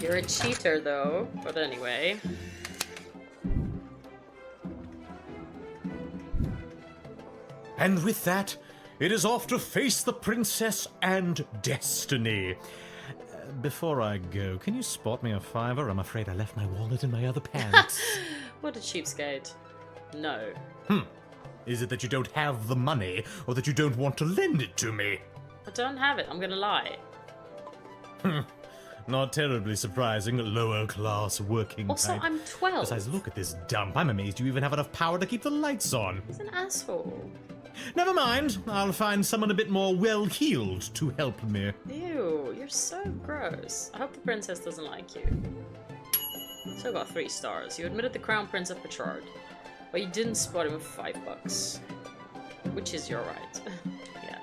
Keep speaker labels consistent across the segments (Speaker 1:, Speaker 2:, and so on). Speaker 1: You're a cheater, though. But anyway.
Speaker 2: And with that, it is off to face the princess and destiny. Uh, Before I go, can you spot me a fiver? I'm afraid I left my wallet in my other pants.
Speaker 1: What a cheapskate. No.
Speaker 2: is it that you don't have the money, or that you don't want to lend it to me?
Speaker 1: I don't have it. I'm gonna lie.
Speaker 2: Not terribly surprising, lower class working
Speaker 1: Also,
Speaker 2: type.
Speaker 1: I'm 12.
Speaker 2: Besides, look at this dump. I'm amazed you even have enough power to keep the lights on.
Speaker 1: He's an asshole.
Speaker 2: Never mind, I'll find someone a bit more well heeled to help me.
Speaker 1: Ew, you're so gross. I hope the princess doesn't like you. Still got three stars. You admitted the crown prince of Petrard, but you didn't spot him with five bucks, which is your right. yeah.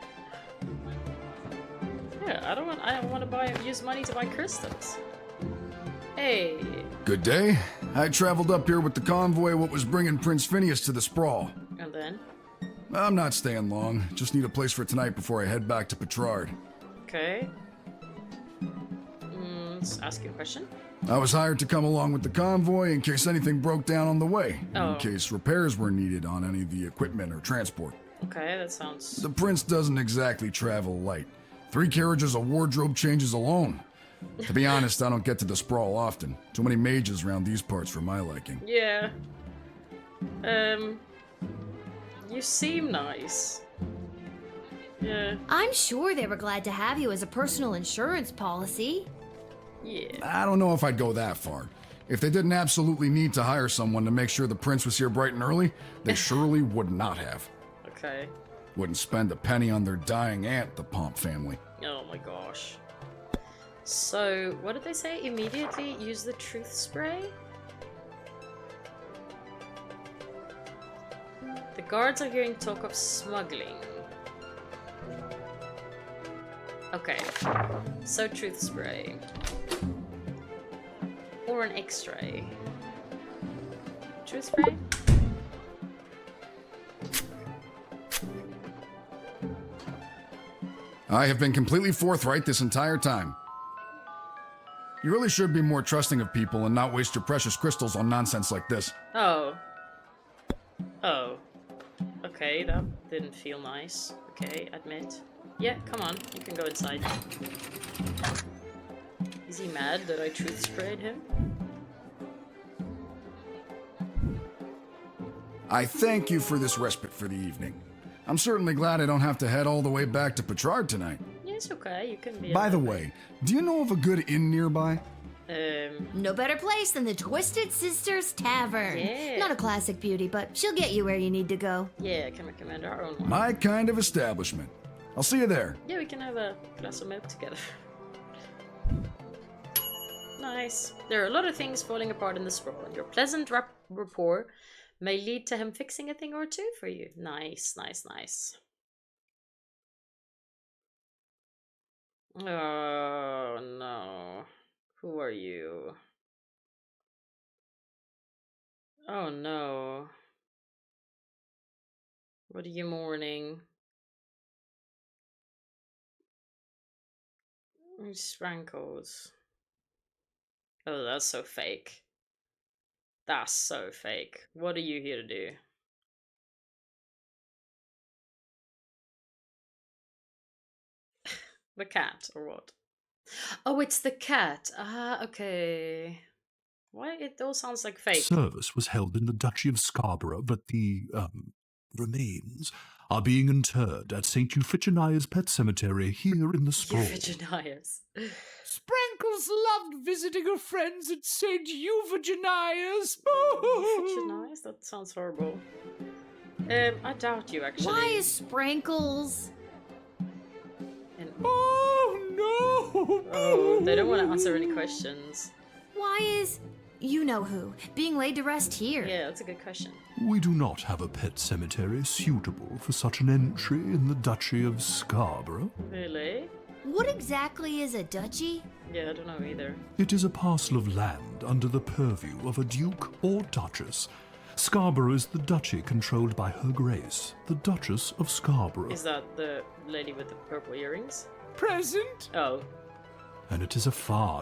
Speaker 1: Yeah, I don't want. I don't want to buy use money to buy crystals. Hey,
Speaker 3: Good day. I traveled up here with the convoy what was bringing Prince Phineas to the sprawl.
Speaker 1: and then
Speaker 3: I'm not staying long. Just need a place for tonight before I head back to Petrard.
Speaker 1: okay. Mm, let's ask you a question.
Speaker 3: I was hired to come along with the convoy in case anything broke down on the way,
Speaker 1: Oh.
Speaker 3: in case repairs were needed on any of the equipment or transport.
Speaker 1: Okay, that sounds
Speaker 3: The prince doesn't exactly travel light. Three carriages of wardrobe changes alone. To be honest, I don't get to the sprawl often. Too many mages around these parts for my liking.
Speaker 1: Yeah. Um. You seem nice. Yeah.
Speaker 4: I'm sure they were glad to have you as a personal insurance policy.
Speaker 1: Yeah.
Speaker 3: I don't know if I'd go that far. If they didn't absolutely need to hire someone to make sure the prince was here bright and early, they surely would not have.
Speaker 1: Okay.
Speaker 3: Wouldn't spend a penny on their dying aunt, the Pomp family.
Speaker 1: Oh my gosh. So, what did they say? Immediately use the truth spray? The guards are hearing talk of smuggling. Okay. So, truth spray. Or an x ray. Truth spray?
Speaker 3: I have been completely forthright this entire time. You really should be more trusting of people and not waste your precious crystals on nonsense like this.
Speaker 1: Oh. Oh. Okay, that didn't feel nice. Okay, admit. Yeah, come on, you can go inside. Is he mad that I truth sprayed him?
Speaker 3: I thank you for this respite for the evening. I'm certainly glad I don't have to head all the way back to Petrard tonight.
Speaker 1: Yeah, it's okay, you can be.
Speaker 3: By the way, do you know of a good inn nearby?
Speaker 1: Um,
Speaker 4: No better place than the Twisted Sisters Tavern.
Speaker 1: Yeah.
Speaker 4: Not a classic beauty, but she'll get you where you need to go.
Speaker 1: yeah, I can recommend our own one.
Speaker 3: My kind of establishment. I'll see you there.
Speaker 1: Yeah, we can have a glass of milk together. nice. There are a lot of things falling apart in the sprawl, and your pleasant rap- rapport may lead to him fixing a thing or two for you. Nice, nice, nice. Oh no. Who are you? Oh no. What are you mourning? It's rankles. Oh, that's so fake. That's so fake. What are you here to do? the cat, or what? Oh, it's the cat. Ah, okay. Why? It all sounds like fake.
Speaker 5: Service was held in the Duchy of Scarborough, but the um, remains are being interred at St. Euphigenia's Pet Cemetery here in the Sprawl.
Speaker 1: Euphigenius.
Speaker 6: Sprankles loved visiting her friends at St. Euphigenia's.
Speaker 1: Euphigenius? That sounds horrible. Um, I doubt you actually.
Speaker 4: Why is Sprankles?
Speaker 1: And-
Speaker 6: Oh no!
Speaker 1: Oh, they don't want to answer any questions.
Speaker 4: Why is you know who being laid to rest here?
Speaker 1: Yeah, that's a good question.
Speaker 5: We do not have a pet cemetery suitable for such an entry in the Duchy of Scarborough.
Speaker 1: Really?
Speaker 4: What exactly is a duchy?
Speaker 1: Yeah, I don't know either.
Speaker 5: It is a parcel of land under the purview of a duke or duchess. Scarborough is the duchy controlled by Her Grace, the Duchess of Scarborough,
Speaker 1: Is that the lady with the purple earrings?
Speaker 6: Present?
Speaker 1: Oh,
Speaker 5: and it is a far